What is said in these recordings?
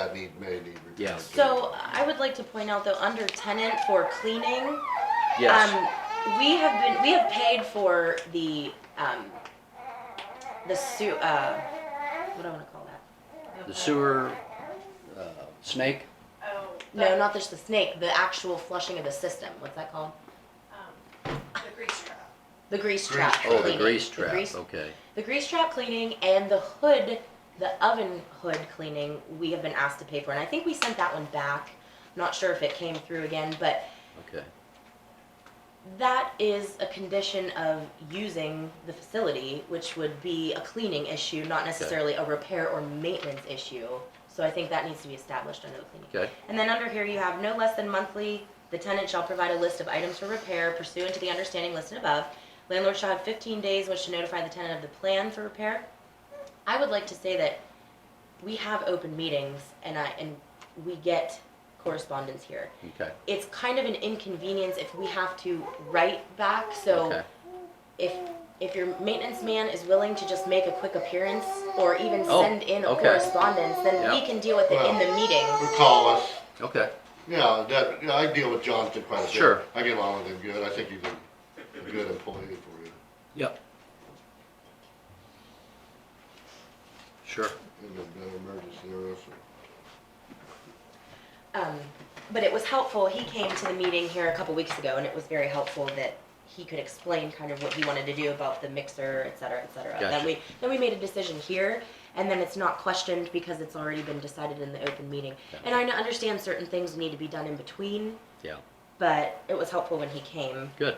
that need, may need repair. Yes. too. So I would like to point out though, under tenant for cleaning, Yes. um, we have been, we have paid for the, um, the su, uh, what do I wanna call that? The sewer, uh, snake, Oh. No, not just the snake, the actual flushing of the system, what's that called? um, The grease trap. The grease Grease trap. trap. oh, the cleaning. grease trap, grease- okay. The grease trap cleaning and the hood, the oven hood cleaning, we have been asked to pay for, and I think we sent that one back. Not sure if it came through again, but Okay, that is a condition of using the facility, which would be a cleaning issue, not necessarily a repair or maintenance issue. So I think that needs to be established under the cleaning. okay, And then under here, you have no less than monthly, the tenant shall provide a list of items for repair pursuant to the understanding listed above. Landlord shall have fifteen days which to notify the tenant of the plan for repair. I would like to say that we have open meetings and I, and we get correspondence here. okay, It's kind of an inconvenience if we have to write back, so okay, if, if your maintenance man is willing to just make a quick appearance or even Oh, send in a okay. correspondence, then we Yeah. can deal with it in the meeting. Who call us, okay, yeah, that, yeah, I deal with Johnston quite a bit. Sure. I get along with him good, I think he's a a good employee for you. yep. Sure, in an emergency or else. Um, but it was helpful, he came to the meeting here a couple weeks ago, and it was very helpful that he could explain kind of what he wanted to do about the mixer, et cetera, et cetera. Then Gotcha. we, then we made a decision here, and then it's not questioned because it's already been decided in the open meeting. And I n- understand certain things need to be done in between, yeah, but it was helpful when he came, good.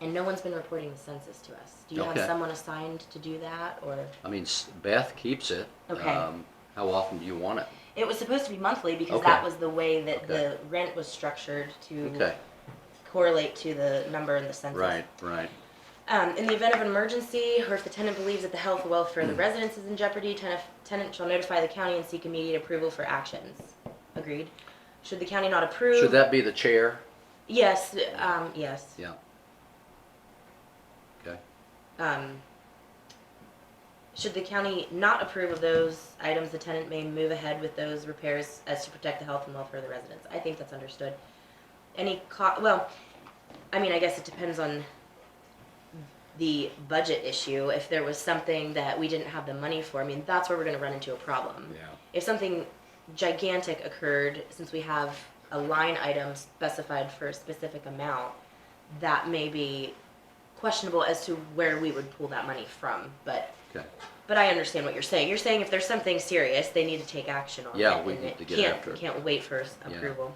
and no one's been reporting the census to us. Do you have Okay. someone assigned to do that, or? I mean, S- Beth keeps it. Okay. Um, How often do you want it? It was supposed to be monthly because Okay. that was the way that the Okay. rent was structured to Okay, correlate to the number in the census. right, right, Um, in the event of an emergency, or if the tenant believes that the health or welfare of Hmm. the residents is in jeopardy, tenant, tenant shall notify the county and seek immediate approval for actions. Agreed. Should the county not approve? Should that be the chair? Yes, um, yes. Yeah. Okay, Um, should the county not approve of those items, the tenant may move ahead with those repairs as to protect the health and welfare of the residents. I think that's understood. Any co- well, I mean, I guess it depends on the budget issue. If there was something that we didn't have the money for, I mean, that's where we're gonna run into a problem. yeah, If something gigantic occurred, since we have a line item specified for a specific amount, that may be questionable as to where we would pull that money from, but, okay. but I understand what you're saying. You're saying if there's something serious, they need to take action on it. Yeah, we and need it to get can't- after it. Can't wait for s- Yeah. approval.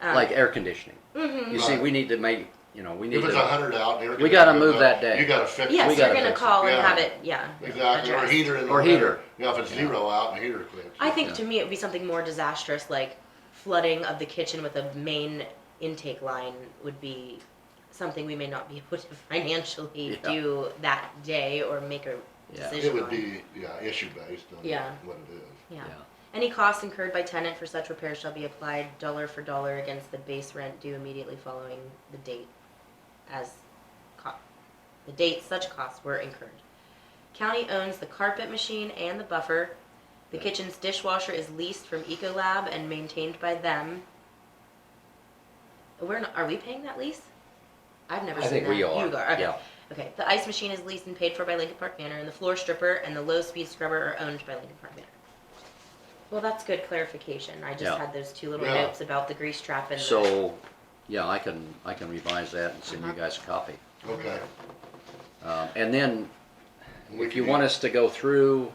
Um, Like air conditioning. mhm. You see, we need to make, you know, we need If it's a to, hundred out there. We gotta move that day. You gotta fix it. Yes, you're gotta gonna fix it. call and Yeah. have it, yeah. Exactly, or addressed. heater in the Or winter. heater. Yeah, if it's Yeah. zero out and the heater clips. I think Yeah. to me it'd be something more disastrous, like flooding of the kitchen with a main intake line would be something we may not be able to financially Yeah. do that day or make a Yeah. decision It would on. be, yeah, issue based on Yeah. what it is. yeah. yeah, Any costs incurred by tenant for such repairs shall be applied dollar for dollar against the base rent due immediately following the date as co- the date such costs were incurred. County owns the carpet machine and the buffer. The kitchen's dishwasher is leased from Ecolab and maintained by them. We're not, are we paying that lease? I've never I seen think that. we are, You are. Okay. yeah. Okay. The ice machine is leased and paid for by Lincoln Park Manor, and the floor stripper and the low-speed scrubber are owned by Lincoln Park Manor. Well, that's good clarification. I just Yeah. had those two little Yeah. notes about the grease trap and the- So, yeah, I can, I can revise that and send you Uh-huh. guys a copy. Okay. Um, and then, We Mm-hmm. if can you do- want us to go through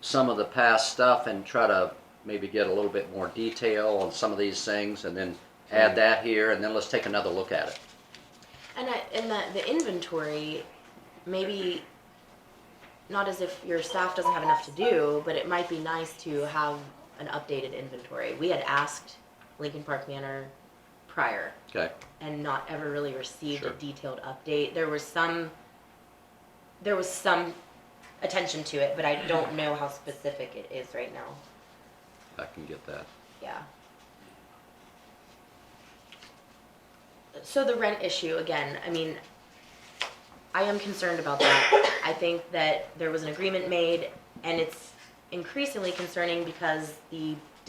some of the past stuff and try to maybe get a little bit more detail on some of these things, and then add Mm. that here, and then let's take another look at it. And I, and the, the inventory, maybe not as if your staff doesn't have enough to do, but it might be nice to have an updated inventory. We had asked Lincoln Park Manor prior Okay, and not ever really received a Sure. detailed update. There was some, there was some attention to it, but I don't know how specific it is right now. I can get that. Yeah. So the rent issue, again, I mean, I am concerned about that. I think that there was an agreement made, and it's increasingly concerning because the